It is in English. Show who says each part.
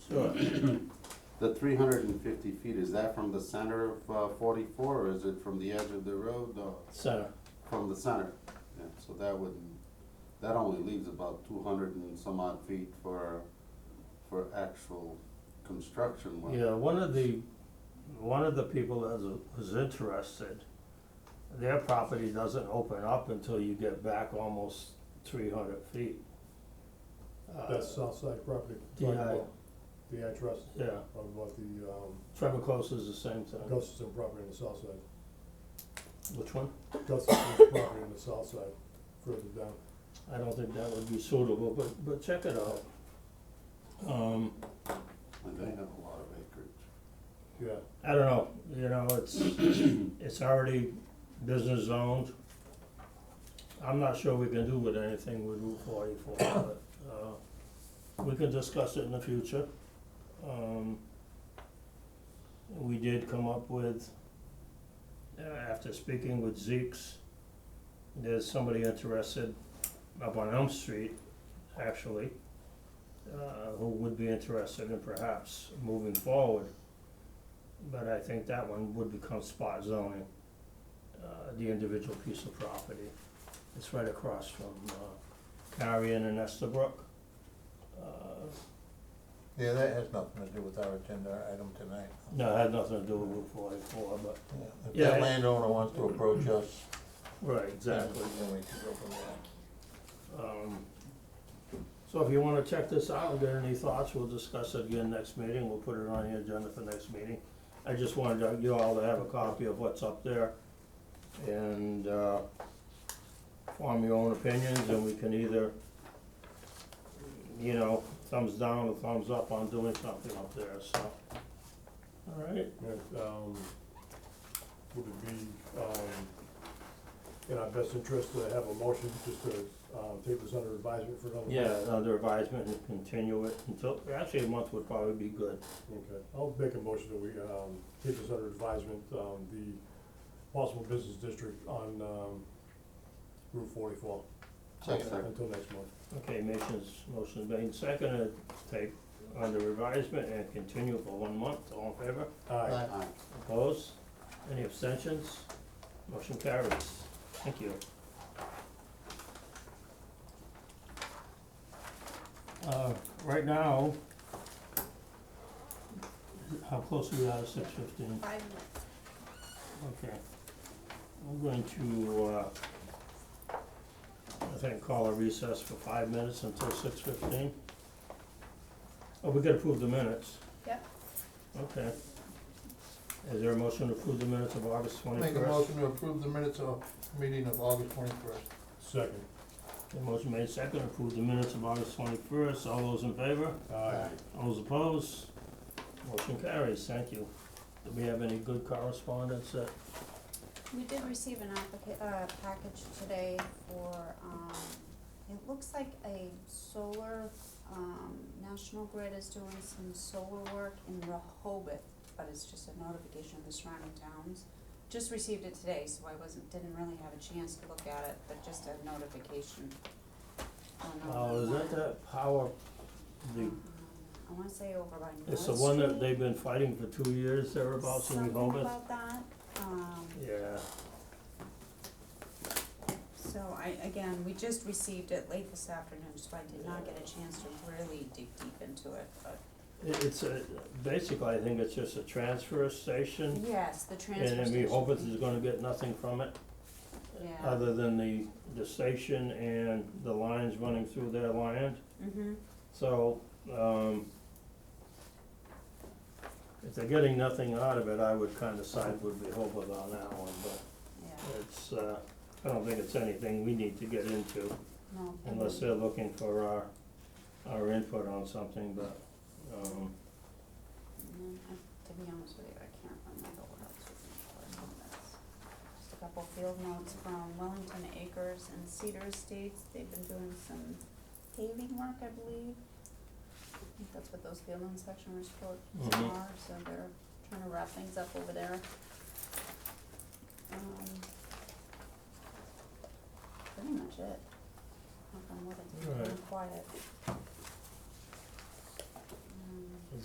Speaker 1: The three hundred and fifty feet, is that from the center of uh, forty-four, or is it from the edge of the road, or
Speaker 2: Center.
Speaker 1: from the center? Yeah, so that would, that only leaves about two hundred and some odd feet for, for actual construction work.
Speaker 2: Yeah, one of the, one of the people that was- was interested, their property doesn't open up until you get back almost three hundred feet. Uh,
Speaker 3: That's south side property.
Speaker 2: DI.
Speaker 3: Right, The address
Speaker 2: Yeah,
Speaker 3: of about the, um,
Speaker 2: Trevor Close is the same thing.
Speaker 3: Gustafson property on the south side.
Speaker 2: Which one?
Speaker 3: Gustafson's property on the south side, further down.
Speaker 2: I don't think that would be suitable, but, but check it out. Um,
Speaker 1: And they have a lot of acreage.
Speaker 3: Yeah,
Speaker 2: I don't know, you know, it's, it's already business zoned. I'm not sure we can do with anything with Route forty-four, but, uh, we can discuss it in the future. Um, we did come up with, uh, after speaking with Zeke's, there's somebody interested up on Elm Street, actually, uh, who would be interested in perhaps moving forward. But I think that one would become spot zoning, uh, the individual piece of property. It's right across from, uh, Carrion and Estabrook. Uh,
Speaker 4: Yeah, that has nothing to do with our agenda item tonight.
Speaker 2: no, it had nothing to do with Route forty-four, but,
Speaker 4: Yeah, If
Speaker 2: Yeah, I-
Speaker 4: that landowner wants to approach us,
Speaker 2: right,
Speaker 4: then
Speaker 2: exactly.
Speaker 4: then we can go from there.
Speaker 2: Um, so if you wanna check this out, get any thoughts, we'll discuss it again next meeting, we'll put it on the agenda for next meeting. I just wanted you all to have a copy of what's up there and, uh, form your own opinions and we can either, you know, thumbs down or thumbs up on doing something up there, so. Alright,
Speaker 3: and, um, would it be, um, in our best interest to have a motion just to, um, take this under advisement for another?
Speaker 2: yeah, under advisement and continue it until, actually a month would probably be good.
Speaker 3: Okay, I'll make a motion that we, um, take this under advisement, um, the possible business district on, um, Route forty-four.
Speaker 1: Second.
Speaker 3: Until next month.
Speaker 2: Okay, motion's, motion's made, seconded, take under advisement and continue for one month, all in favor?
Speaker 3: Aye.
Speaker 1: Aye.
Speaker 2: Opposed? Any abstentions? Motion carries. Thank you. Uh, right now, how close are we at six fifteen?
Speaker 5: Five minutes.
Speaker 2: Okay. I'm going to, uh, I think call a recess for five minutes until six fifteen. Oh, we gotta approve the minutes.
Speaker 5: Yep.
Speaker 2: Okay. Is there a motion to approve the minutes of August twenty-first?
Speaker 4: Make a motion to approve the minutes of meeting of August twenty-first.
Speaker 3: Second.
Speaker 2: motion made second, approve the minutes of August twenty-first. All those in favor?
Speaker 3: Aye.
Speaker 2: All those opposed? Motion carries. Thank you. Do we have any good correspondence that
Speaker 5: We did receive an applica- uh, package today for, um, it looks like a solar, um, National Grid is doing some solar work in Rehoboth, but it's just a notification of the surrounding towns. Just received it today, so I wasn't, didn't really have a chance to look at it, but just a notification. on the-
Speaker 2: Oh, is that that power, the,
Speaker 5: Um, I wanna say over by North
Speaker 2: it's the one that
Speaker 5: Street.
Speaker 2: they've been fighting for two years thereabouts in
Speaker 5: Something
Speaker 2: Rehoboth?
Speaker 5: about that, um,
Speaker 2: Yeah,
Speaker 5: so I, again, we just received it late this afternoon, so I did not get a chance to really dig deep into it, but.
Speaker 2: it, it's a, basically, I think it's just a transfer station,
Speaker 5: Yes, the
Speaker 2: Mm-hmm. and
Speaker 5: transfer
Speaker 2: then
Speaker 5: station.
Speaker 2: Rehoboth is gonna get nothing from it,
Speaker 5: Yeah,
Speaker 2: other than the, the station and the lines running through their land,
Speaker 5: mhm,
Speaker 2: so, um, if they're getting nothing out of it, I would kinda side with Rehoboth on that one, but
Speaker 5: yeah,
Speaker 2: it's, uh, I don't think it's anything we need to get into.
Speaker 5: no. I
Speaker 2: unless
Speaker 5: mean,
Speaker 2: they're looking for our, our input on something, but, um,
Speaker 5: mm, I- To be honest with you, I can't remember what else was in the correspondence. Just a couple field notes from Wellington Acres and Cedar Estates, they've been doing some paving work, I believe. I think that's what those field notes section was for,
Speaker 2: Mhm.
Speaker 5: are, so they're trying to wrap things up over there. Um, Pretty much it. Nothing more than
Speaker 2: Alright.
Speaker 5: quiet. Um,